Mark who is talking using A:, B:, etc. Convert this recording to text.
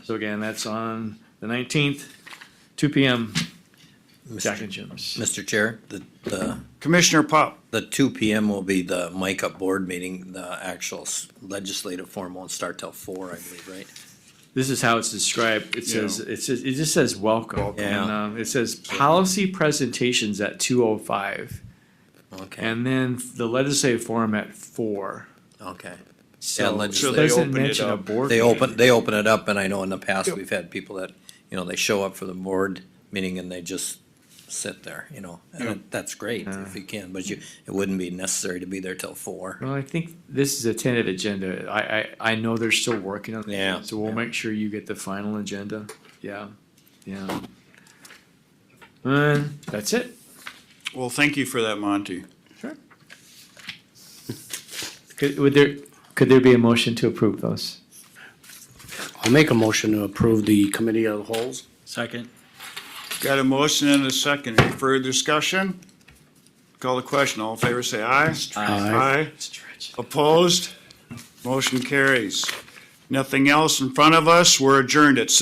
A: So again, that's on the nineteenth, two P M, Jack
B: Mr.
A: and Jim's.
B: Mr. Chair, the, the,
C: Commissioner Pop,
B: the two P M will be the mic up board meeting, the actual s- legislative form won't start till four, I believe, right?
A: This is how it's described. It says, it says, it just says welcome.
C: Welcome.
A: And,
B: Yeah.
A: um, it says policy presentations at two oh five.
B: Okay,
A: And then the legislative forum at four.
B: okay. Yeah,
A: So it
C: So they
B: legislative,
A: doesn't
C: opened it
A: mention a
C: up.
A: board.
B: they
A: meeting.
B: open, they open it up, and I know in the past,
C: Yep.
B: we've had people that, you know, they show up for the board meeting and they just sit there, you know?
C: Yep.
B: And that's great if you can, but you, it wouldn't be necessary to be there till four.
A: Well, I think this is a tentative agenda. I, I, I know they're still working on it.
B: Yeah.
A: So we'll make sure you get the final agenda. Yeah, yeah. And that's it.
C: well, thank you for that, Monty.
A: Could, would there, could there be a motion to approve those?
D: I'll make a motion to approve the committee of the holes.
B: Second.
C: Got a motion and a second. Any further discussion? Call the question. All in favor, say aye.
D: Aye.
A: Stretch.
C: Opposed? Motion carries. Nothing else in front of us. We're adjourned at